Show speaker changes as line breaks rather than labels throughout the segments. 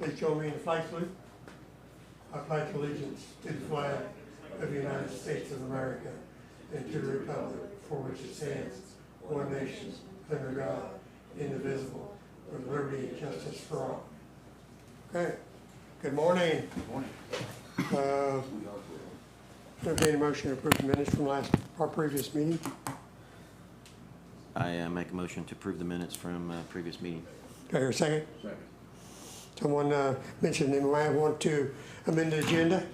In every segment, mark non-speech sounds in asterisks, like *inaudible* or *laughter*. Please join me in the flag salute. I pledge allegiance to the flag of the United States of America and to the republic for which it stands, one nation, under God, indivisible, with liberty and justice for all. Okay, good morning. Good morning. Entertained a motion to approve the minutes from last, our previous meeting.
I uh, make a motion to approve the minutes from uh, previous meeting.
Do I hear a second? Second. Someone uh, mentioned they might want to amend the agenda.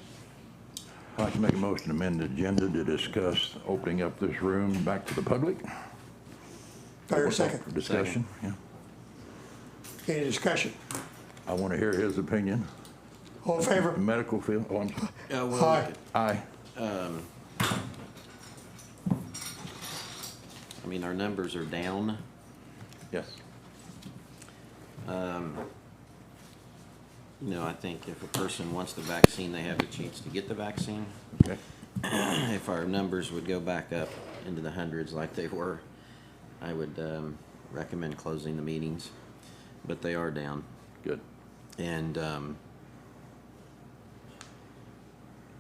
I'd like to make a motion to amend the agenda to discuss opening up this room back to the public.
Do I hear a second?
For Discussion, yeah.
Any discussion?
I want to hear his opinion.
All in favor?
Medical field, oh, I'm, sorry.
Uh, well,
Aye.
we could-
aye.
I mean, our numbers are down.
Yes.
You know, I think if a person wants the vaccine, they have the chance to get the vaccine. *clears throat*
Okay.
If our numbers would go back up into the hundreds like they were, I would um, recommend closing the meetings, but they are down.
Good.
And, um,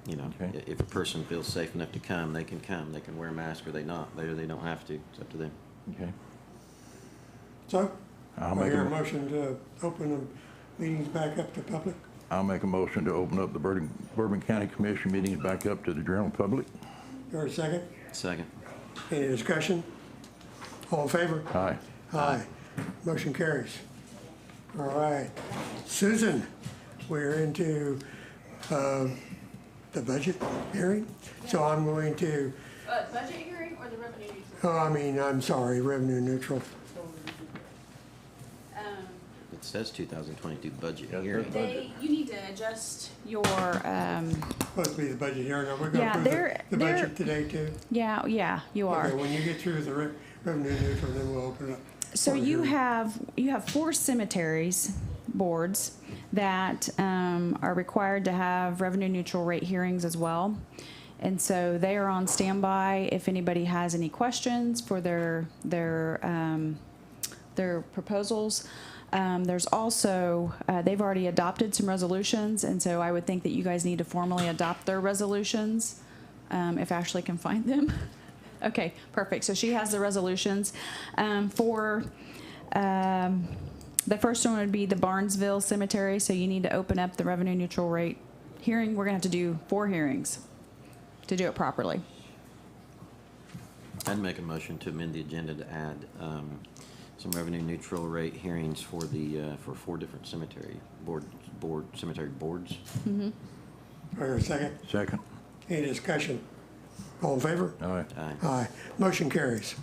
you know, i-
Okay.
if a person feels safe enough to come, they can come. They can wear a mask or they not. They, they don't have to. It's up to them.
Okay.
So,
I'll
I
make,
hear a
a-
motion to open the meetings back up to public.
I'll make a motion to open up the Bourbon, Bourbon County Commission meetings back up to the general public.
Do I hear a second?
Second.
Any discussion? All in favor?
Aye.
Aye. Motion carries. All right. Susan, we're into uh, the budget hearing, so I'm going to,
Uh, budget hearing or the revenue neutral?
oh, I mean, I'm sorry, revenue neutral.
Um,
It says 2022 budget
Yeah, it
year.
says budget.
they, you need to adjust your, um,
Supposed to be the budget hearing, are we going
Yeah,
to approve
they're-
the- the
they're-
budget today too?
Yeah, yeah, you
Okay,
are.
when you get through the re- revenue neutral, then we'll open up.
So
for the
you
hearing.
have, you have four cemeteries boards that um, are required to have revenue neutral rate hearings as well. And so they are on standby if anybody has any questions for their, their, um, their proposals. Um, There's also, uh, they've already adopted some resolutions, and so I would think that you guys need to formally adopt their resolutions, um, if Ashley can find them. *laughs* Okay, perfect. So she has the resolutions um, for, um, the first one would be the Barnesville Cemetery, so you need to open up the revenue neutral rate hearing. We're gonna have to do four hearings to do it properly.
I'd make a motion to amend the agenda to add um, some revenue neutral rate hearings for the, uh, for four different cemetery board, board, cemetery boards.
Do I hear a second?
Second.
Any discussion? All in favor?
Aye.
Aye.
Aye. Motion carries.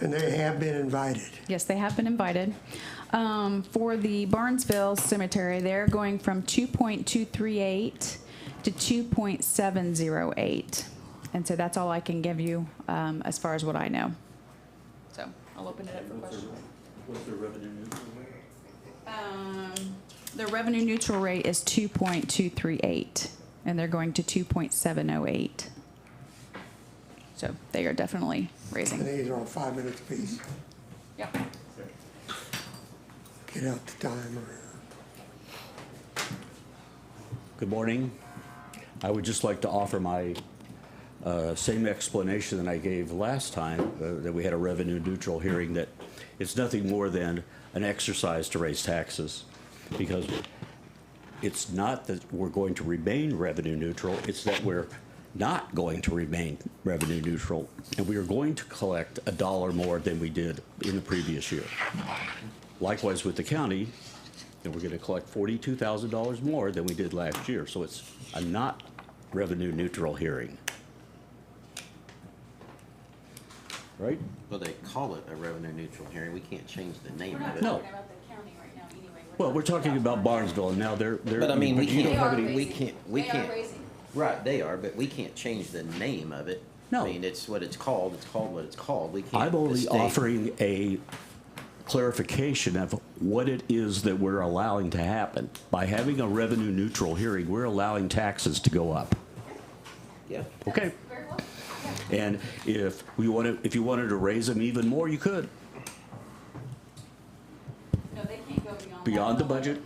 And they have been invited.
Yes, they have been invited. Um, for the Barnesville Cemetery, they're going from two point two three eight to two point seven zero eight. And so that's all I can give you, um, as far as what I know. So I'll open it up for questions. Um, the revenue neutral rate is two point two three eight, and they're going to two point seven oh eight. So they are definitely
And
raising.
these are all five minutes apiece.
Yep.
Get out the timer.
Good morning. I would just like to offer my uh, same explanation that I gave last time, uh, that we had a revenue neutral hearing, that it's nothing more than an exercise to raise taxes. Because it's not that we're going to remain revenue neutral, it's that we're not going to remain revenue neutral. And we are going to collect a dollar more than we did in the previous year. Likewise with the county, and we're gonna collect forty-two thousand dollars more than we did last year, so it's a not revenue neutral hearing. Right?
Well, they call it a revenue neutral hearing. We can't change the name
we're
of
not
it.
No.
talking about the county right now anyway.
Well, we're talking about Barnesville, and now they're, they're.
But I mean, we
you
can't-
They
don't have
are
any-
we
raising.
can't- we
They
can't.
are raising.
Right, they are, but we can't change the name of it. I
No.
mean, it's what it's called. It's called what it's called. We can't.
I'm only
mistake-
offering a clarification of what it is that we're allowing to happen. By having a revenue neutral hearing, we're allowing taxes to go up.
Yeah.
Okay?
Very well. Yeah.
And if we wanted, if you wanted to raise them even more, you could.
No, they can't go beyond. that.
Beyond the budget,